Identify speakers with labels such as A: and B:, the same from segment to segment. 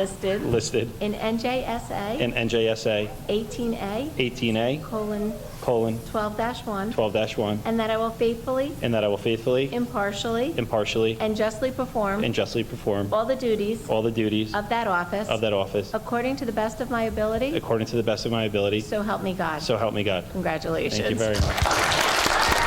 A: listed
B: listed
A: in NJSA
B: in NJSA
A: 18A:12-1,
B: 18A:12-1,
A: and that I will faithfully,
B: and that I will faithfully,
A: impartially,
B: impartially,
A: and justly perform
B: and justly perform
A: all the duties
B: all the duties
A: of that office
B: of that office
A: according to the best of my ability,
B: according to the best of my ability,
A: so help me God.
B: so help me God.
A: Congratulations.
B: Thank you very much.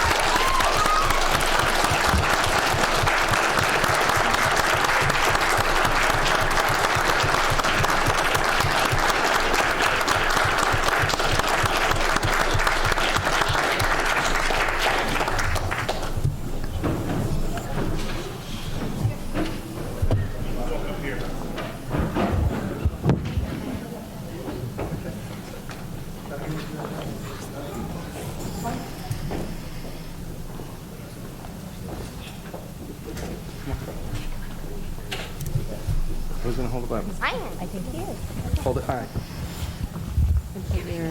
C: Who's gonna hold the Bible?
A: I am. I think he is.
C: Hold it, all right.
A: Put your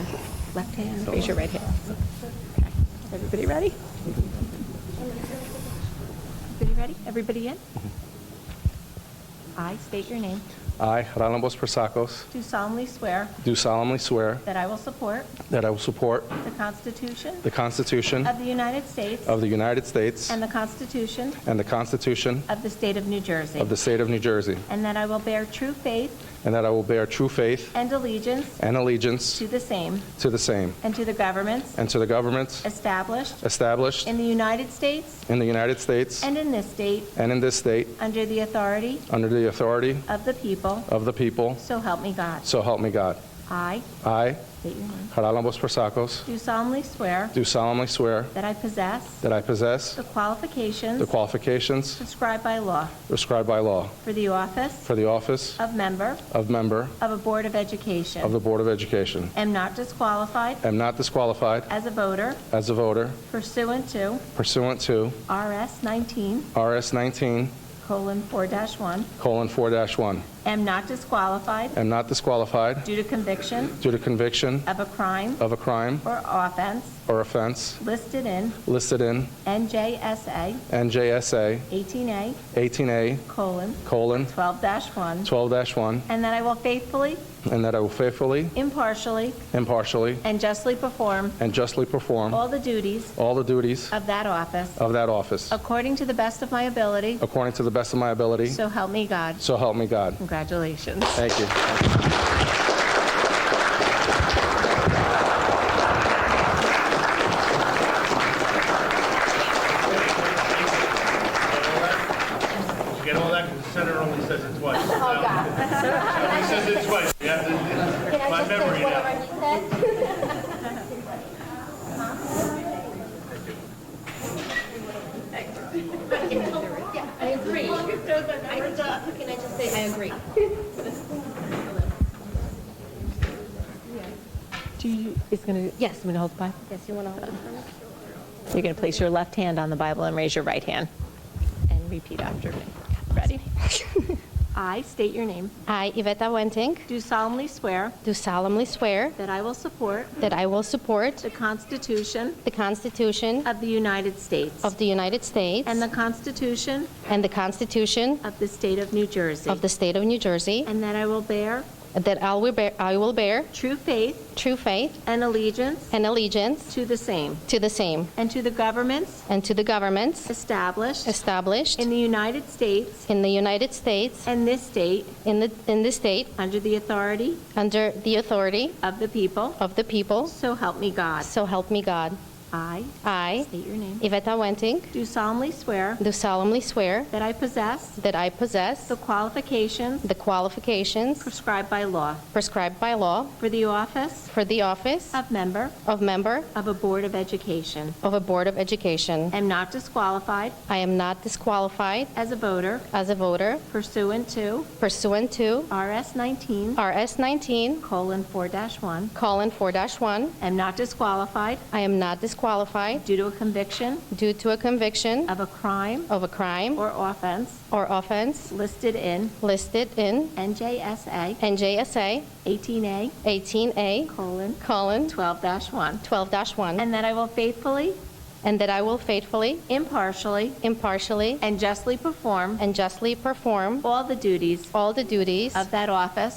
A: left hand, raise your right hand. Everybody ready? Everybody ready? Everybody in? I state your name.
C: I, Ralambos Persacos,
A: Do solemnly swear
C: do solemnly swear
A: that I will support
C: that I will support
A: the Constitution
C: the Constitution
A: of the United States
C: of the United States
A: and the Constitution
C: and the Constitution
A: of the State of New Jersey,
C: of the State of New Jersey,
A: and that I will bear true faith
C: and that I will bear true faith
A: and allegiance
C: and allegiance
A: to the same
C: to the same
A: and to the governments
C: and to the governments
A: established
C: established
A: in the United States
C: in the United States
A: and in this state
C: and in this state
A: under the authority
C: under the authority
A: of the people,
C: of the people,
A: so help me God.
C: so help me God.
A: I
C: I,
A: state your name.
C: Ralambos Persacos,
A: Do solemnly swear
C: do solemnly swear
A: that I possess
C: that I possess
A: the qualifications
C: the qualifications
A: prescribed by law
C: prescribed by law
A: for the office
C: for the office
A: of member
C: of member
A: of a Board of
C: of
A: Education.
C: the Board of Education.
A: Am not disqualified
C: Am not disqualified
A: as a voter
C: as a voter
A: pursuant to
C: pursuant to
A: RS 19
C: RS 19:4-1.
A: colon 4-1.
C: colon 4-1.
A: Am not disqualified
C: Am not disqualified
A: due to conviction
C: due to conviction
A: of a crime
C: of a crime
A: or offense
C: or offense
A: listed in
C: listed in
A: NJSA
C: NJSA
A: 18A
C: 18A:12-1,
A: colon
C: colon
A: 12-1,
C: 12-1,
A: and that I will faithfully,
C: and that I will faithfully,
A: impartially,
C: impartially,
A: and justly perform
C: and justly perform
A: all the duties
C: all the duties
A: of that office
C: of that office
A: according to the best of my ability,
C: according to the best of my ability,
A: so help me God.
C: so help me God.
A: Congratulations.
C: Thank you.
D: Get all that, 'cause the senator only says it twice. Oh, God. He says it twice, you have to, it's my memory now.
E: Yeah, I agree. Can I just say, I agree.
A: Do you, is going to, yes, I'm going to hold the Bible.
E: Yes, you want to hold it for me?
A: You're going to place your left hand on the Bible and raise your right hand and repeat after me. Ready? I state your name.
E: I, Iveta Wenting,
A: Do solemnly swear
E: do solemnly swear
A: that I will support
E: that I will support
A: the Constitution
E: the Constitution
A: of the United States
E: of the United States
A: and the Constitution
E: and the Constitution
A: of the State of New Jersey,
E: of the State of New Jersey,
A: and that I will bear
E: that I will bear- I will bear
A: true faith
E: true faith
A: and allegiance
E: and allegiance
A: to the same
E: to the same
A: and to the governments
E: and to the governments
A: established
E: established
A: in the United States
E: in the United States,
A: and this state
E: in the in this state,
A: under the authority
E: under the authority
A: of the people,
E: of the people,
A: so help me God.
E: so help me God.
A: I
E: I,
A: state your name.
E: Iveta Wenting,
A: Do solemnly swear
E: do solemnly swear
A: that I possess
E: that I possess
A: the qualifications
E: the qualifications
A: prescribed by law
E: prescribed by law
A: for the office
E: for the office
A: of member
E: of member
A: of a Board of Education.
E: of a Board of Education.
A: Am not disqualified
E: I am not disqualified
A: as a voter
E: as a voter
A: pursuant to
E: pursuant to
A: RS 19
E: RS 19
A: colon 4-1.
E: colon 4-1.
A: Am not disqualified
E: I am not disqualified
A: due to a conviction
E: due to a conviction
A: of a crime
E: of a crime
A: or offense
E: or offense
A: listed in
E: listed in
A: NJSA
E: NJSA
A: 18A
E: 18A
A: colon
E: colon
A: 12-1,
E: 12-1.
A: and that I will faithfully,
E: and that I will faithfully,
A: impartially,
E: impartially,
A: and justly perform
E: and justly perform
A: all the duties
E: all the duties
A: of that office